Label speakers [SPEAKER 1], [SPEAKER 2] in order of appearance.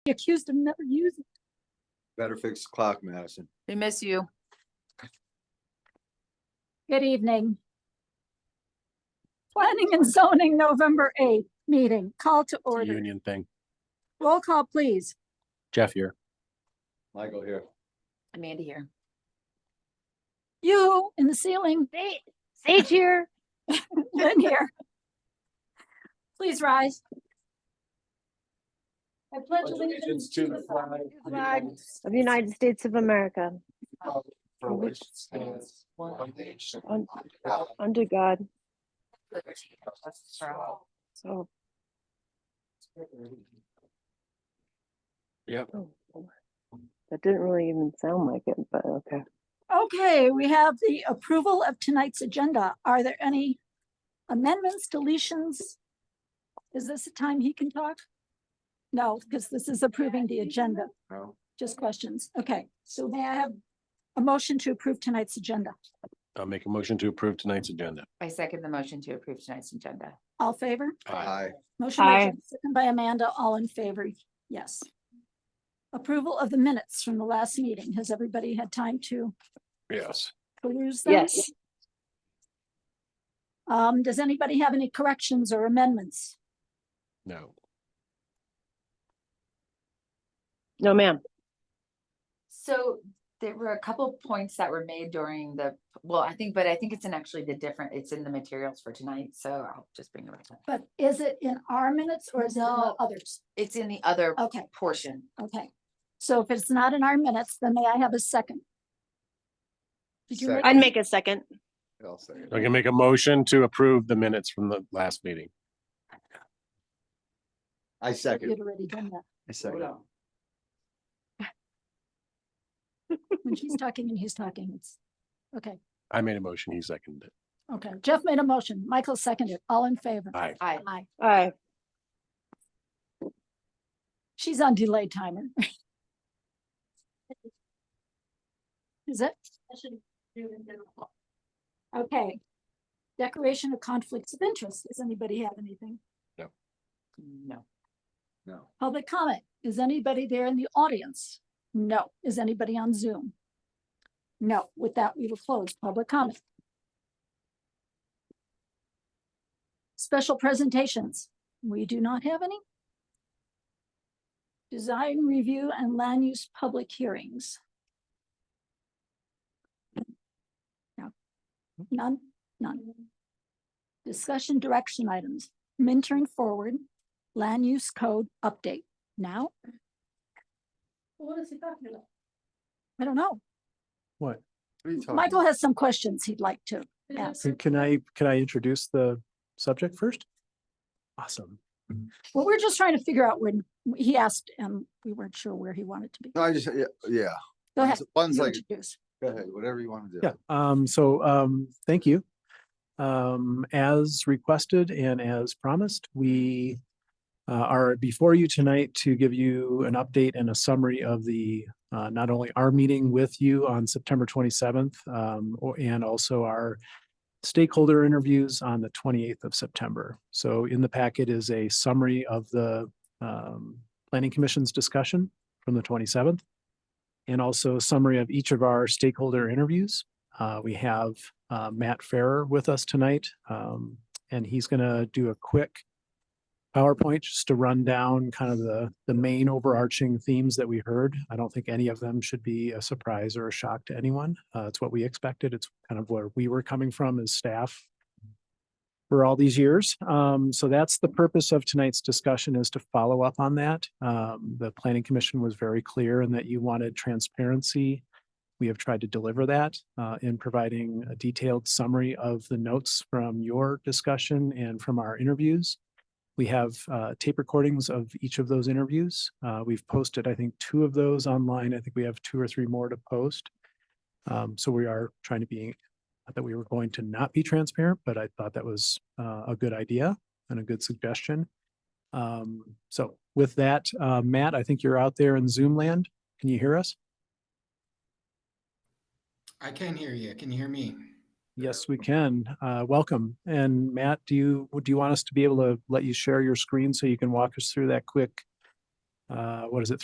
[SPEAKER 1] He accused him never using.
[SPEAKER 2] Better fix the clock, Madison.
[SPEAKER 3] We miss you.
[SPEAKER 1] Good evening. Planning and zoning November eighth meeting, call to
[SPEAKER 4] It's a
[SPEAKER 1] order.
[SPEAKER 4] Union thing.
[SPEAKER 1] Roll call, please.
[SPEAKER 4] Jeff here.
[SPEAKER 2] Michael here.
[SPEAKER 3] Amanda here.
[SPEAKER 1] You in the ceiling,
[SPEAKER 5] Sa- Sage here.
[SPEAKER 1] Lynn here. Please rise. I pledge allegiance to the flag.
[SPEAKER 5] Of the United States of America,
[SPEAKER 6] For which stands one nation.
[SPEAKER 5] un-
[SPEAKER 6] under
[SPEAKER 5] under God,
[SPEAKER 6] God.
[SPEAKER 5] so.
[SPEAKER 4] Yep.
[SPEAKER 5] oh, Lord. That didn't really even sound like it, but okay.
[SPEAKER 1] Okay, we have the approval of tonight's agenda. Are there any amendments, deletions? Is this the time he can talk? No, because this is approving the agenda.
[SPEAKER 2] No.
[SPEAKER 1] Just questions. Okay, so may I have a motion to approve tonight's agenda?
[SPEAKER 4] I'll make a motion to approve tonight's agenda.
[SPEAKER 3] I second the motion to approve tonight's agenda.
[SPEAKER 1] All favor?
[SPEAKER 2] Hi,
[SPEAKER 1] Motion by
[SPEAKER 5] Aye.
[SPEAKER 1] Jen, second by Amanda, all in favor, yes. Approval of the minutes from the last meeting. Has everybody had time to
[SPEAKER 4] Yes.
[SPEAKER 1] peruse them?
[SPEAKER 5] Yes.
[SPEAKER 1] Um, does anybody have any corrections or amendments?
[SPEAKER 4] No.
[SPEAKER 5] No, ma'am.
[SPEAKER 3] So there were a couple points that were made during the, well, I think, but I think it's in actually the different, it's in the materials for tonight, so I'll just bring it right up.
[SPEAKER 1] But is it in our minutes or is it in the
[SPEAKER 3] No.
[SPEAKER 1] others?
[SPEAKER 3] It's in the other
[SPEAKER 1] Okay,
[SPEAKER 3] portion.
[SPEAKER 1] okay. So if it's not in our minutes, then may I have a second? Did you
[SPEAKER 2] Second.
[SPEAKER 1] make-
[SPEAKER 5] I'd make a second.
[SPEAKER 2] I'll say it.
[SPEAKER 4] I can make a motion to approve the minutes from the last meeting.
[SPEAKER 2] I second.
[SPEAKER 1] You'd already done that.
[SPEAKER 2] I second.
[SPEAKER 1] When she's talking and he's talking, it's, okay,
[SPEAKER 4] I made a motion. He seconded it.
[SPEAKER 1] okay. Jeff made a motion. Michael seconded. All in favor?
[SPEAKER 4] Aye.
[SPEAKER 3] I,
[SPEAKER 1] Aye.
[SPEAKER 5] Aye.
[SPEAKER 1] She's on delay timer. Is it? Okay. Declaration of conflicts of interest. Does anybody have anything?
[SPEAKER 3] no,
[SPEAKER 2] No.
[SPEAKER 1] Public comment. Is anybody there in the audience? No. Is anybody on Zoom? No. With that, we will close public comment. Special presentations. We do not have any. Design review and land use public hearings. No. None, none. Discussion direction items, mentoring forward land use code update now? What is he talking about? I don't know.
[SPEAKER 7] What?
[SPEAKER 2] What are you talking
[SPEAKER 1] Michael
[SPEAKER 2] about?
[SPEAKER 1] has some questions he'd like to ask.
[SPEAKER 7] Can- Can I, can I introduce the subject first? Awesome.
[SPEAKER 1] Well, we're just trying to figure out when he asked and we weren't sure where he wanted to be.
[SPEAKER 2] No, I just, yeah, yeah.
[SPEAKER 1] Go ahead.
[SPEAKER 2] One's
[SPEAKER 1] you
[SPEAKER 2] like,
[SPEAKER 1] introduce.
[SPEAKER 2] go ahead, whatever you want to do.
[SPEAKER 7] Yeah, um, so, um, thank you. Um, as requested and as promised, we uh, are before you tonight to give you an update and a summary of the, uh, not only our meeting with you on September twenty-seventh, um, or- and also our stakeholder interviews on the twenty-eighth of September. So in the packet is a summary of the, um, planning commission's discussion from the twenty-seventh and also a summary of each of our stakeholder interviews. Uh, we have uh, Matt Farrer with us tonight, um, and he's going to do a quick PowerPoint just to run down kind of the the main overarching themes that we heard. I don't think any of them should be a surprise or a shock to anyone. Uh, it's what we expected. It's kind of where we were coming from as staff for all these years. Um, so that's the purpose of tonight's discussion is to follow up on that. Um, the planning commission was very clear in that you wanted transparency. We have tried to deliver that uh, in providing a detailed summary of the notes from your discussion and from our interviews. We have uh, tape recordings of each of those interviews. Uh, we've posted, I think, two of those online. I think we have two or three more to post. Um, so we are trying to be not that we were going to not be transparent, but I thought that was uh, a good idea and a good suggestion. Um, So with that, uh, Matt, I think you're out there in Zoom land. Can you hear us?
[SPEAKER 8] I can hear you. Can you hear me?
[SPEAKER 7] Yes, we can. Uh, Welcome. And Matt, do you, do you want us to be able to let you share your screen so you can walk us through that quick uh, uh, what is it,